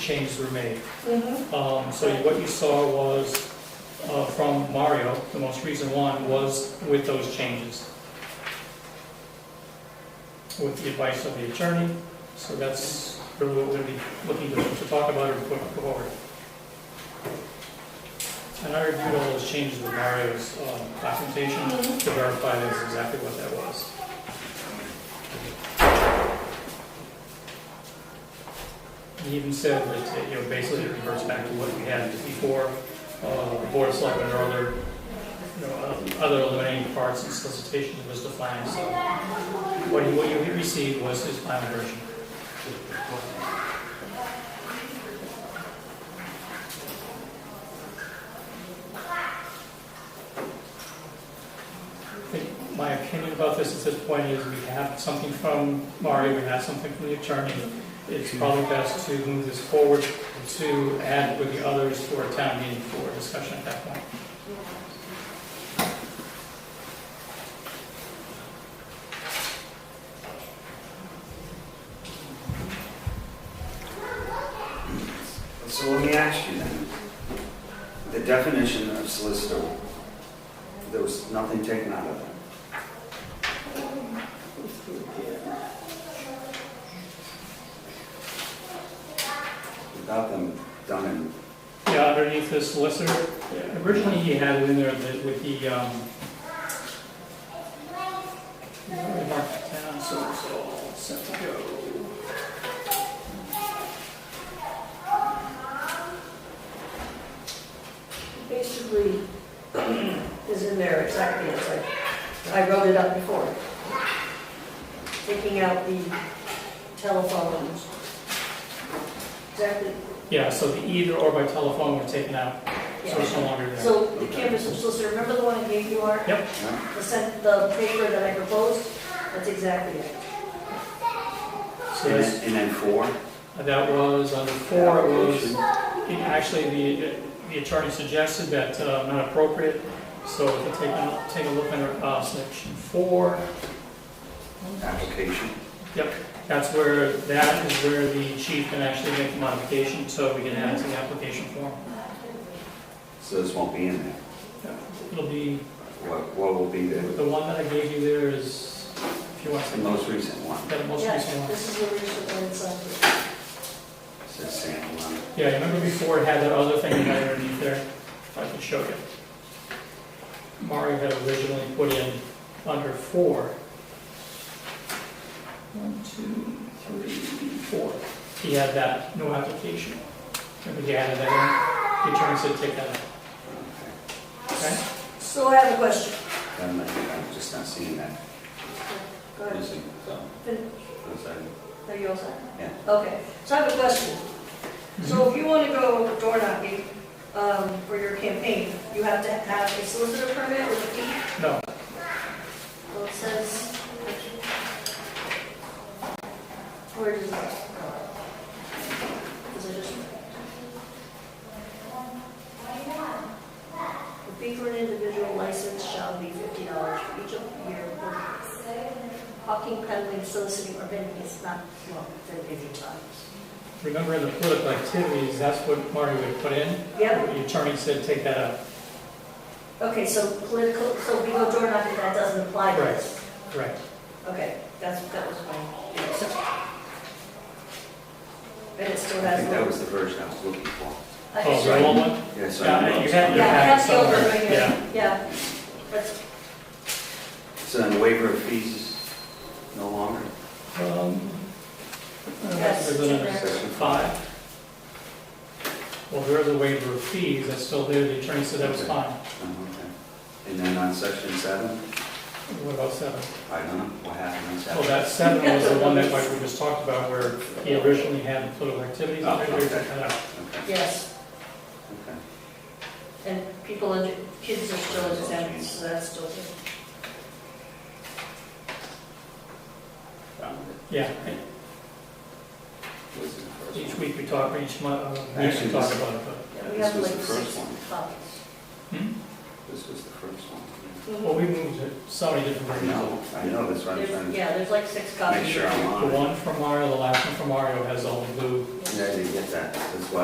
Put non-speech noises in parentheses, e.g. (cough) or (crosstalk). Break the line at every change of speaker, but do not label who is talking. changes were made.
Mhm.
Um, So what you saw was, uh, from Mario, the most recent one, was with those changes. With the advice of the attorney, so that's really what we'll be looking to to talk about or put forward. And I reviewed all those changes with Mario's um, documentation to verify that's exactly what that was. He even said that, it, you know, basically it reverts back to what we had before, uh, the board of selectmen or other, you know, uh, other eliminating parts and solicitations was defined, so. What he, what he received was his final version. I think My opinion about this at this point is we have something from Mario, we have something from the attorney. It's probably best to move this forward to add with the others for a town meeting for discussion at that point.
So let me ask you then, the definition of solicitor, there was nothing taken out of that. Without them done in,
Yeah, underneath the solicitor, originally he had it in there that with the, um, where I marked it down, so it's all set to go.
Basically, (clears throat) is in there exactly as I, I wrote it up before. Taking out the telephones. Exactly,
Yeah, so the either or by telephone were taken out, so it's no
yeah.
longer there.
So the canvas of solicitor, remember the one I gave you, Art?
Yep,
yeah?
The sent, the paper that I proposed? That's exactly it.
so
And
that's,
then- and then four?
that was under four, it was, it actually, the, the attorney suggested that, uh, not appropriate. So if you take, a- take a look under, uh, section four,
Application,
Yep, that's where, that is where the chief can actually make the modification, so we can add to the application form.
so this won't be in there.
It'll be,
What, what will be the,
the one that I gave you there is, if you want
the
to,
most recent one?
that most
Yes,
recent one.
this is the recent one inside.
Says Sam, um,
Yeah, remember before it had that other thing you had underneath there? If I can show you. Mario had originally put in under four. One, two, three, four. He had that, no application. Remember he added that in? The attorney said take that out, okay?
So I have a question.
I'm not- I'm just not seeing that.
Go ahead.
Missing, so, that's it.
Are you all set?
Yeah.
Okay, so I have a question. So if you want to go door knocking um, for your campaign, you have to have a solicitor permit with a fee?
No,
Well, it says... Where does it go? Is it just... The fee for an individual license shall be fifty dollars for each of your hawking, peddling, soliciting, or vending is not, well, then fifty dollars.
Remember in the political activities, that's what Marty would put in?
Yep.
The attorney said, take that out.
Okay, so political, so we go door knocking, that doesn't apply to this?
Correct.
Okay, that's, that was my. And it still
I
has.
think that was the version I was looking for.
I-
Oh, the wrong one?
Yeah, so
Yeah,
I know
you
it's
had-
coming.
Yeah, I have the over
Yeah.
right here, yeah. That's,
So then the waiver of fees is no longer?
Um, uh,
Yes,
there's another
it's in
there.
Section five. Well, there is a waiver of fees, that's still there, the attorney said that was fine.
Oh, okay. And then on section seven,
What about seven?
I don't know what happened on
Well,
seven.
that seven was the one that like, we just talked about where he originally had the political activities.
Oh,
Maybe we
okay.
took that out.
Okay,
yes,
okay.
and people, under kids are still under that, so that's still.
Found it.
Yeah,
Was it the first
each
one?
week we talk, each month, uh, we
Actually,
should talk
this-
about it, but.
Yeah, we
This
have
was
like
the first
six
one.
copies.
Hmm?
This was the first one.
Well, we moved it so many different
I
versions.
know, I know, that's what I'm
There's-
trying
Yeah, there's like six
to
copies.
make sure I'm
The
on. it.
one from Mario, the last one from Mario has all the blue
Yeah, I didn't get that, that's why